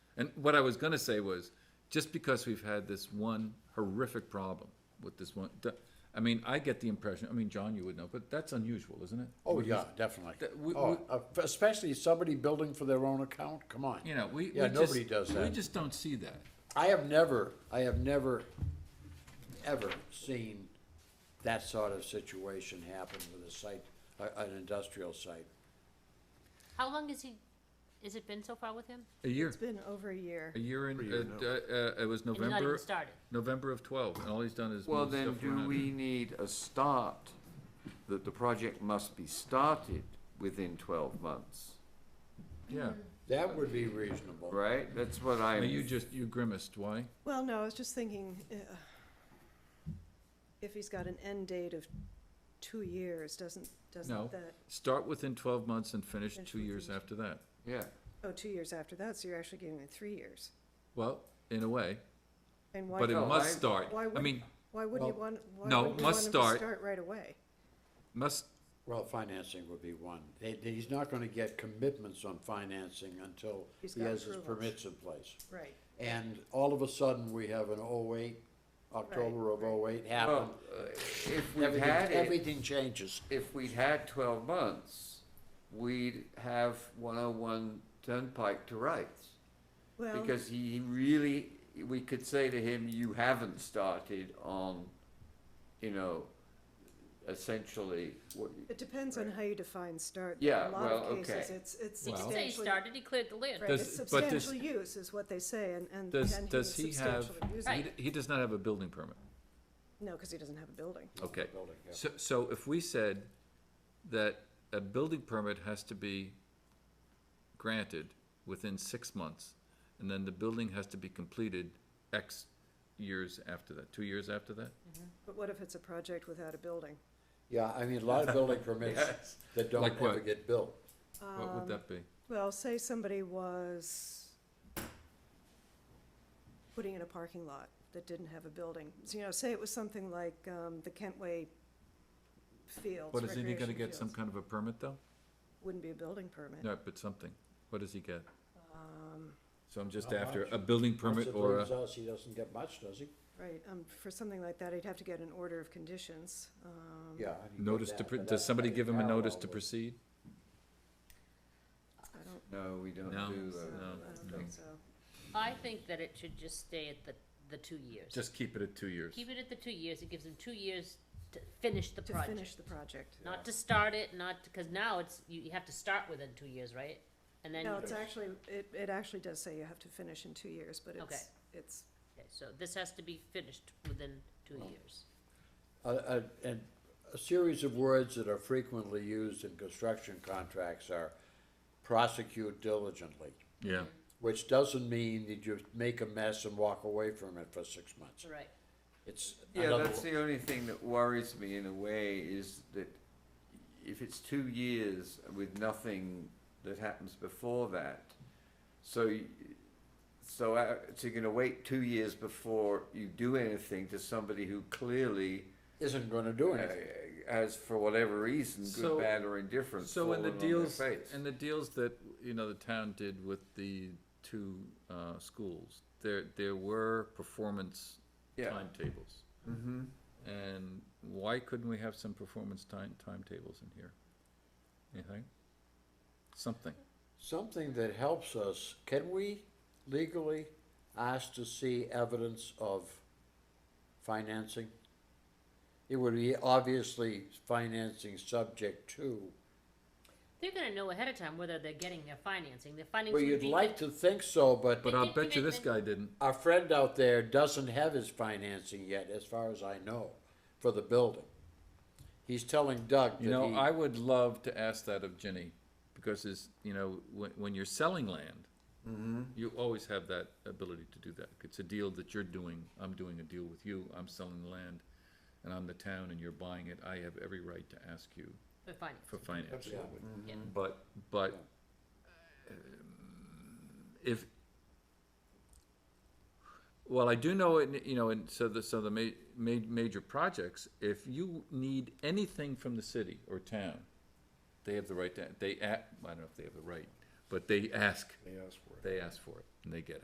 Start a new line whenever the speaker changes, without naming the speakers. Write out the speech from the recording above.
And what I was gonna say was, just because we've had this one horrific problem with this one, d- I mean, I get the impression, I mean, John, you would know, but that's unusual, isn't it?
Oh,
Which is-
yeah, definitely.
that we-
Oh,
we-
uh, especially somebody building for their own account, come on.
You know, we, we
Yeah,
just-
nobody does
We
that.
just don't see that.
I have never, I have never, ever seen that sort of situation happen with a site, a- an industrial site.
How long has he, has it been so far with him?
A year,
It's been over a year.
a year in, uh, uh, uh, it was
And not even
November,
started?
November of twelve, and all he's done is
Well,
move
then,
stuff
do
around.
we need a start, that the project must be started within twelve months,
Yeah,
That would be reasonable.
right? That's what
I
I'm.
mean, you just, you grimaced, why?
Well, no, I was just thinking, uh, if he's got an end date of two years, doesn't,
No.
doesn't that,
Start within twelve months and finish
Finish
two years
within-
after that.
Yeah,
oh, two years after that, so you're actually giving it three years.
Well, in a way,
And why,
but it
No, I-
must start.
why
I
would-
mean,
why wouldn't you
Well,
want, why
no,
wouldn't you want
must
him to
start-
start right away?
must,
Well, financing would be one. They, they- he's not gonna get commitments on financing until
He's
he
got
has his
approvals.
permits in place.
Right.
And all of a sudden, we have an oh-eight, October of oh-eight happen.
well, uh, if we
Everything,
had it,
everything changes.
if we'd had twelve months, we'd have one oh one Turnpike to rights.
Well,
Because he really, we could say to him, you haven't started on, you know, essentially, what,
it depends on how you define start. In
Yeah,
a lot
well,
of cases,
okay.
it's, it's
He didn't say he
substantially, right,
started, he cleared the land.
Does-
it's
but does-
substantial use is what they say, and, and
does,
and he was
does he have,
substantially using
he,
it.
d- he does not have a building permit.
No, because he doesn't have a building.
Okay,
Building, yeah.
so, so if we said that a building permit has to be granted within six months, and then the building has to be completed X years after that, two years after that?
But what if it's a project without a building?
Yeah, I mean, a lot of building permits
Yes.
that don't
Like
ever
what?
get built.
What would that be?
Well, say somebody was putting in a parking lot that didn't have a building. So, you know, say it was something like, um, the Kentway Fields,
What, isn't he gonna
recreation
get some
fields.
kind of a permit though?
Wouldn't be a building permit.
No, but something. What does he get?
Um,
So I'm just
Uh, Not
after,
much.
a building
Once
permit
it
or a,
leaves us, he doesn't get much, does he?
Right, um, for something like that, he'd have to get an order of conditions. Um,
Yeah. and he did
notice to,
that,
pr-
but
does
that's
somebody
not
give him a notice
parallel
to
with-
proceed?
I don't,
no, we don't do
No.
so,
that.
I don't think so.
I think that it should just stay at the, the two years.
Just keep it at two years.
Keep it at the two years, it gives him two years to finish the
To finish
project.
the project.
Not to start it, not, because now it's, you, you have to start within two years, right? And then,
No,
you-
it's actually, it, it actually does say you have to finish in two years, but it's, it's
okay, so this has to be finished within two years.
A, a, and a series of words that are frequently used in construction contracts are prosecute diligently,
Yeah,
which doesn't mean that you make a mess and walk away from it for six months.
Right.
It's
Yeah,
another
that's the only thing that worries me in a way is that if it's two years with nothing that happens before that, so y- so uh, so you're going to wait two years before you do anything to somebody who clearly
isn't going to do
uh,
anything.
has, for whatever reason, good,
So-
bad, or indifferent,
so in the
fallen on their
deals,
face.
in the deals that, you know, the town did with the two, uh, schools, there, there were performance
Yeah.
timetables. Mm-hmm. And why couldn't we have some performance time, timetables in here? Anything? Something.
Something that helps us, can we legally ask to see evidence of financing? It would be obviously financing subject to,
They're gonna know ahead of time whether they're getting their financing, their financing.
well,
would
you'd
be
like to think so, but
But
They
I'll
did
bet you this guy
commitment.
didn't.
our friend out there doesn't have his financing yet, as far as I know, for the building. He's telling Doug
You know, I
that
would love to ask that of Ginny, because it's, you know, when, when you're selling land, you always have that ability to do that. It's a deal that you're doing, I'm doing a deal with you, I'm selling the land, and I'm the town, and you're buying it, I have every right to ask you
For financing.
for finance.
he. Yeah.
But, but, um, if, well, I do know, in you know, and so the, so the ma- ma- major projects, if you need anything from the city or town, they have the right to, they, a- I don't know if they have the right, but they ask. They ask for it. They ask for it, and they get it.